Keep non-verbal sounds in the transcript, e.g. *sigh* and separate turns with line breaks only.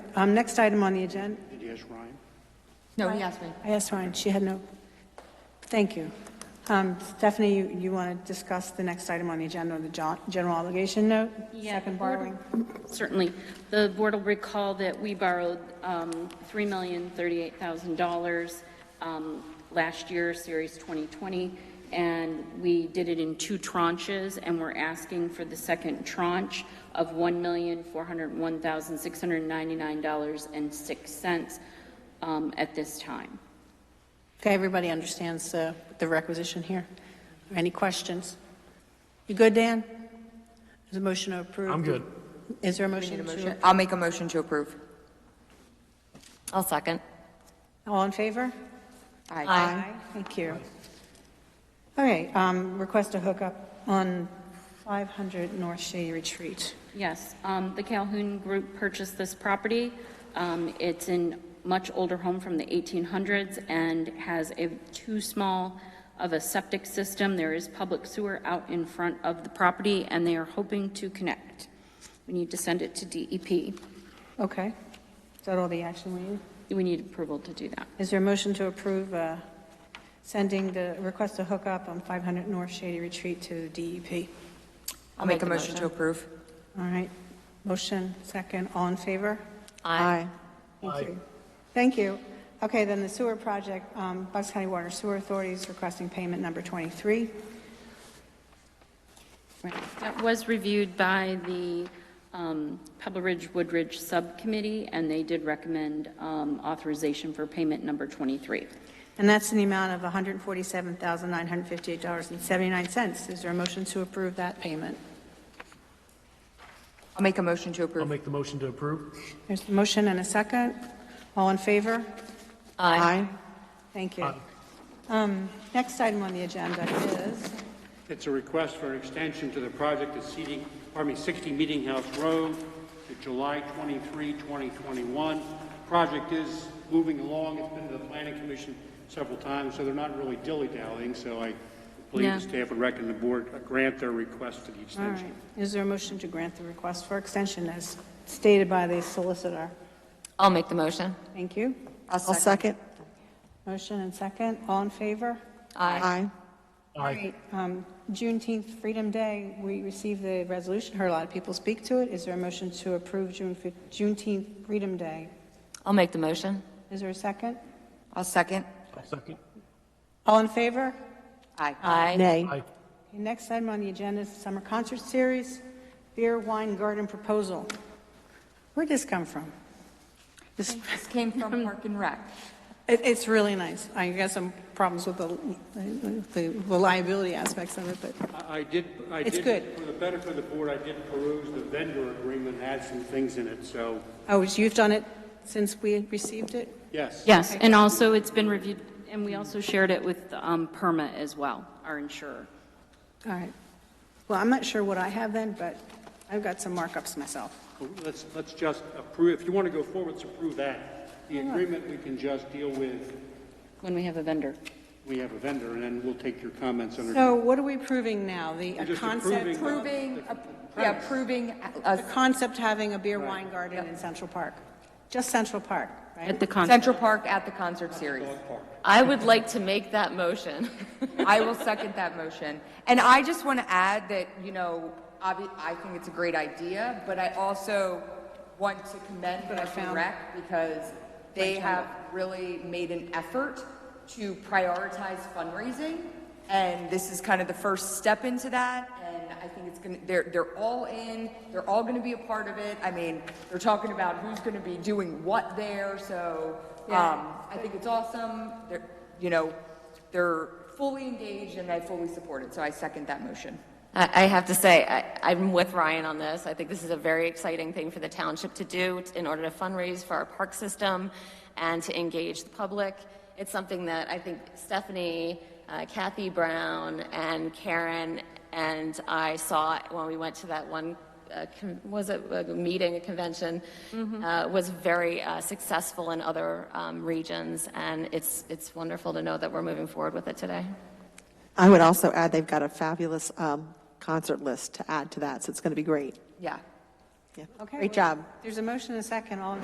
Um, Next item on the agenda,
Did you ask Ryan?
No, he asked me.
I asked Ryan, she had no, thank you. Um, Stephanie, you, you want to discuss the next item on the agenda, the jo- general obligation note?
Yeah,
Second
the board-
borrowing.
Certainly. The board will recall that we borrowed um, $3,038,000 um, last year, Series 2020, and we did it in two tranches, and we're asking for the second tranche of $1,401,699.06 um, at this time.
Okay, everybody understands uh, the requisition here. Any questions? You good, Dan? Is a motion to approve?
I'm good.
Is there a motion
Motion-
to?
I'll make a motion to approve.
I'll second.
All in favor?
Aye.
Thank you. Okay, um, request a hookup on 500 North Shady Retreat.
Yes, um, the Calhoun Group purchased this property. Um, It's a much older home from the 1800s and has a too small of a septic system. There is public sewer out in front of the property, and they are hoping to connect. We need to send it to E DEP.
Okay. Is that all the action we need?
We need approval to do that.
Is there a motion to approve uh, sending the request to hook up on 500 North Shady Retreat to DEP?
I'll make a motion to approve.
All right, motion, second, all in favor?
Aye.
Thank you. Thank you. Okay, then the sewer project, um, Bucks County Water Sewer Authority is requesting payment number 23.
Right. That was reviewed by the um, Pebble Ridge Woodridge Subcommittee, and they did recommend um, authorization for payment number 23.
And that's in the amount of $147,958.79. Is there a motion to approve that payment?
I'll make a motion to
I'll
approve.
make the motion to approve.
There's a motion and a second. All in favor?
Aye.
Thank you.
Aye.
Um, Next item on the agenda is,
It's a request for an extension to the project at seating, pardon me, 60 Meeting House Road to July 23, 2021. Project is moving along. It's been to the planning commission several times, so they're not really dilly-dallying. So I believe
Yeah.
the staff would recommend the board uh, grant their request for the
all
extension.
right, is there a motion to grant the request for extension as stated by the solicitor?
I'll make the motion.
Thank you.
I'll
I'll second.
Motion and second, all in favor?
Aye.
Aye.
Um, Juneteenth Freedom Day, we received the resolution, heard a lot of people speak to it. Is there a motion to approve June fif- Juneteenth Freedom Day?
I'll make the motion.
Is there a second?
I'll second.
I'll second.
All in favor?
Aye.
Aye.
Nay.
Aye.
Okay, Next item on the agenda is the Summer Concert Series Beer Wine Garden Proposal. Where'd this come from?
This came from Park and Rec.
It, it's really nice. I got some problems with the, the reliability aspects of it, but
I I did, I
It's
did.
good.
For the benefit of the board, I did peruse the vendor agreement, and had some things in it, so,
Oh, you've done it since we received it?
yes.
Yes, and also it's been reviewed, and we also shared it with um, PERMA as well, our insurer.
All right. Well, I'm not sure what I have then, but I've got some markups myself.
Well, Let's, let's just approve, if you want to go forward, let's approve that. The agreement, we can just deal with,
When we have a vendor.
we have a vendor, and then we'll take your comments under.
So what are we proving now? The a
You're just
concept,
Approving,
approving-
uh, yeah, approving, uh,
a concept having a beer wine garden in Central Park? Just Central Park, right?
At the concert.
Central Park at the concert series.
I would like to make that motion. *laughs*
I will second that motion. And I just want to add that, you know, obvi- I think it's a great idea, but I also want to commend
But I
Parks and
found-
Rec because they have really made an effort to prioritize fundraising. And this is kind of the first step into that. And I think it's going to, they're, they're all in, they're all going to be a part of it. I mean, they're talking about who's going to be doing what there. So um, I think it's awesome. They're, you know, they're fully engaged and I fully support it. So I second that motion.
I I have to say, I- I'm with Ryan on this. I think this is a very exciting thing for the township to do in order to fundraise for our park system and to engage the public. It's something that I think Stephanie, uh, Kathy Brown, and Karen and I saw when we went to that one uh, con- was it a meeting, a convention, uh, was very uh, successful in other um, regions, and it's it's wonderful to know that we're moving forward with it today.
I would also add, they've got a fabulous um, concert list to add to that, so it's going to be great.
Yeah.
Yeah.
Okay,
Great
well,
job.
There's a motion and a second. All in